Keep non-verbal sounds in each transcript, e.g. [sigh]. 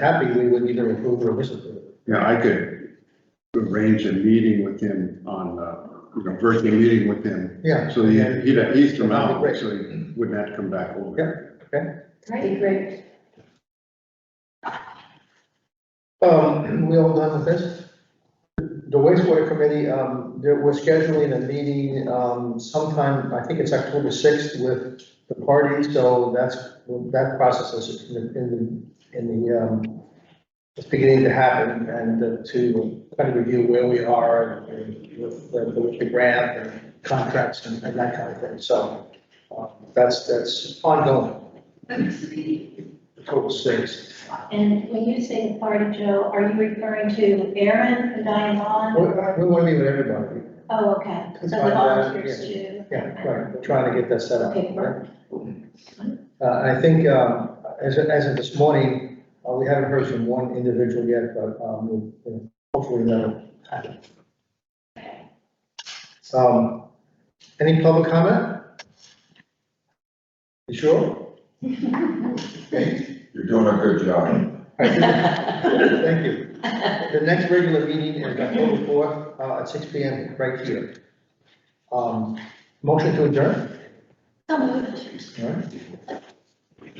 happy, we would either approve or disapprove. Yeah, I could arrange a meeting with him on, uh, you know, virtual meeting with him. Yeah. So he, he'd, he's from That'd be out, great. so he wouldn't have to come back over. Yeah. That'd be great. Um, [clears throat] we all done with this? The wastewater committee, um, there, we're scheduling a meeting, um, sometime, I think it's October sixth with the party, so that's, that process is in, the- in, the- in the, um, it's beginning to happen, and uh, to kind of review where we are and with, the- with the grant and contracts and and that kind of thing, so, uh, that's, that's ongoing, October sixth. And when you say the party, Joe, are you referring to Aaron and Diane We, Vaughn? we want to meet with everybody. Oh, okay, so It's the fine, uh, volunteers too. Yeah, right, trying to get that set up. Okay, right? Uh, I think, um, as, of- as of this morning, uh, we haven't heard from one individual yet, but, um, we'll- we'll hopefully that'll happen. [laughs] Um, any public comment? You sure? You're doing a good job. Thank you. The next regular meeting is October fourth, uh, at six P M, right here. Um, motion to adjourn, So moved. all right?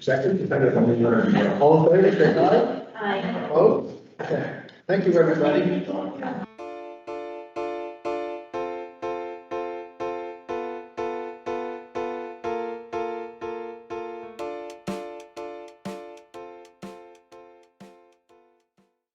Second, You're- all in favor, say aye. Aye. Opposed? Okay. Thank you, everybody.